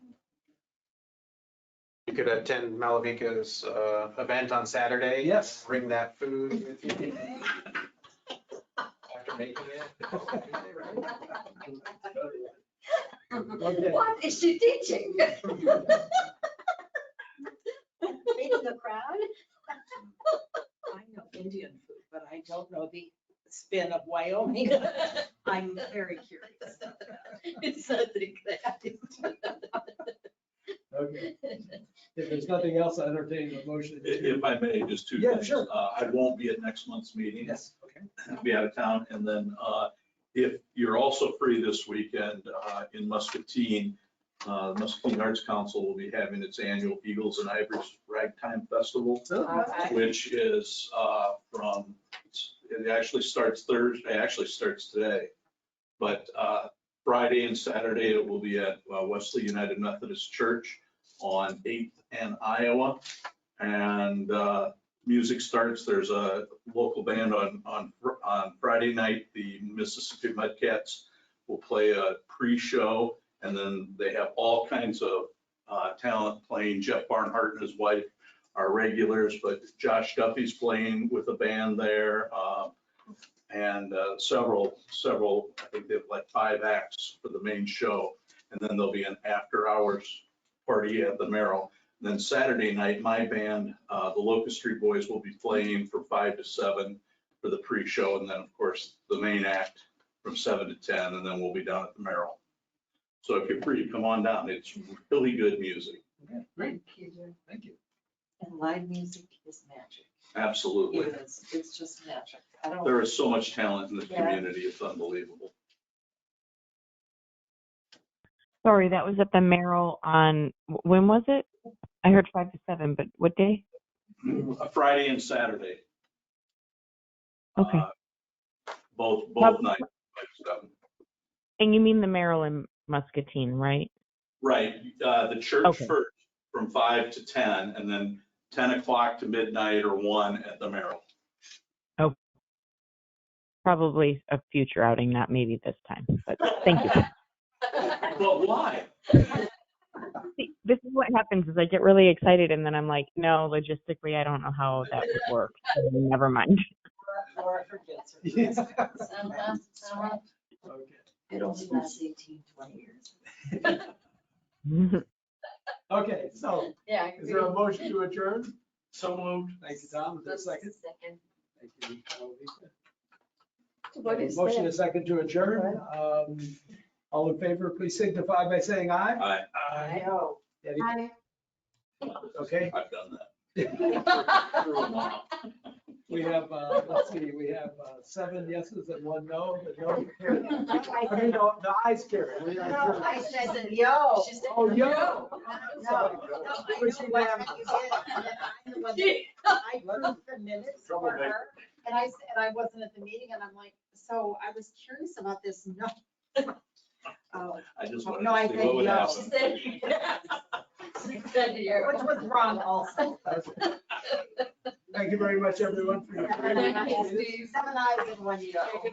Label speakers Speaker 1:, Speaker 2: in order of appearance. Speaker 1: You could attend Malavika's uh, event on Saturday.
Speaker 2: Yes.
Speaker 1: Bring that food with you after making it.
Speaker 2: Okay.
Speaker 3: What is she teaching?
Speaker 4: Reading the crowd? I know Indian food, but I don't know the spin of Wyoming. I'm very curious.
Speaker 3: It's something that.
Speaker 2: Okay. If there's nothing else, I entertain a motion. to-
Speaker 5: If I may, just two
Speaker 2: Yeah,
Speaker 5: things.
Speaker 2: sure.
Speaker 5: Uh, I won't be at next month's meeting.
Speaker 2: Yes, okay.
Speaker 5: I'll be out of town. And then uh, if you're also free this weekend uh, in Muscatine, uh, Muscatine Arts Council will be having its annual Eagles and Ivories Ragtime Festival,
Speaker 2: Uh,
Speaker 4: Okay.
Speaker 5: which is uh, from, it actually starts Thursday, actually starts today. But uh, Friday and Saturday, it will be at uh, Wesley United Methodist Church on 8th and Iowa. And uh, music starts, there's a local band on, on, Fr- on Friday night, the Mississippi Mudcats will play a pre-show, and then they have all kinds of uh, talent playing. Jeff Barnhart and his wife are regulars, but Josh Duffy's playing with a band there, uh, and uh, several, several, I think they have like five acts for the main show, and then there'll be an after-hours party at the Merrill. Then Saturday night, my band, uh, the Locust Street Boys, will be playing from five to seven for the pre-show, and then, of course, the main act from seven to ten, and then we'll be down at the Merrill. So if you're free, come on down. It's really good music.
Speaker 2: Okay, Great,
Speaker 4: Thank you, Jim.
Speaker 2: thank you.
Speaker 4: And live music is magic.
Speaker 5: Absolutely.
Speaker 4: It is, it's just magic. I don't,
Speaker 5: There is so much talent in this
Speaker 4: Yeah.
Speaker 5: community. It's unbelievable.
Speaker 6: Sorry, that was at the Merrill on, wh- when was it? I heard five to seven, but what day?
Speaker 5: Friday and Saturday.
Speaker 6: Okay.
Speaker 5: uh, Both,
Speaker 6: How-
Speaker 5: both nights. five to seven.
Speaker 6: And you mean the Merrill in Muscatine, right?
Speaker 5: Right, uh, the church
Speaker 6: Okay.
Speaker 5: first, from five to ten, and then ten o'clock to midnight or one at the Merrill.
Speaker 6: Probably a future outing, not maybe this time, but thank you.
Speaker 5: But why?
Speaker 6: See, This is what happens is I get really excited and then I'm like, no, logistically, I don't know how that would work. So Never mind.
Speaker 4: Laura forgets. her
Speaker 2: Yeah.
Speaker 4: questions.
Speaker 3: Somehow, somehow.
Speaker 2: Okay.
Speaker 4: It only lasts 18, 20 years.
Speaker 2: Okay, so
Speaker 3: Yeah. I
Speaker 2: is there a
Speaker 3: agree.
Speaker 2: motion to adjourn?
Speaker 5: So moved.
Speaker 2: Thank you, Tom. Is there a second?
Speaker 3: Second.
Speaker 2: Thank you, Alvika.
Speaker 3: What is
Speaker 2: Motion
Speaker 3: that?
Speaker 2: is second to adjourn. Um, All in favor, please signify by saying aye.
Speaker 5: I,
Speaker 2: Aye.
Speaker 4: No.
Speaker 2: Okay,
Speaker 5: I've done that. For a
Speaker 3: Hi.
Speaker 5: while.
Speaker 2: we have, uh, let's see, we have uh, seven yeses and one no, but no. carried. I mean, no, the ayes carry. We are
Speaker 4: No,
Speaker 2: adjourned.
Speaker 4: I said, yo.
Speaker 3: She said,
Speaker 2: Oh, yo.
Speaker 3: no.
Speaker 4: No, no, I know what you did, and then I'm the one that- I approved the minutes for her, and I, s- and I wasn't at the meeting, and I'm like, so I was curious about this, no. Oh,
Speaker 5: I just
Speaker 4: Oh,
Speaker 5: wanted
Speaker 4: no, I
Speaker 5: to see
Speaker 4: said
Speaker 5: what would
Speaker 4: no.
Speaker 3: She
Speaker 5: happen.
Speaker 3: said, yes. She said,
Speaker 4: Which
Speaker 3: you.
Speaker 4: was wrong also.
Speaker 2: Thank you very much, everyone, for your.
Speaker 4: Seven
Speaker 3: Thank you,
Speaker 4: eyes
Speaker 3: Steve.
Speaker 4: seven eyes and one yo.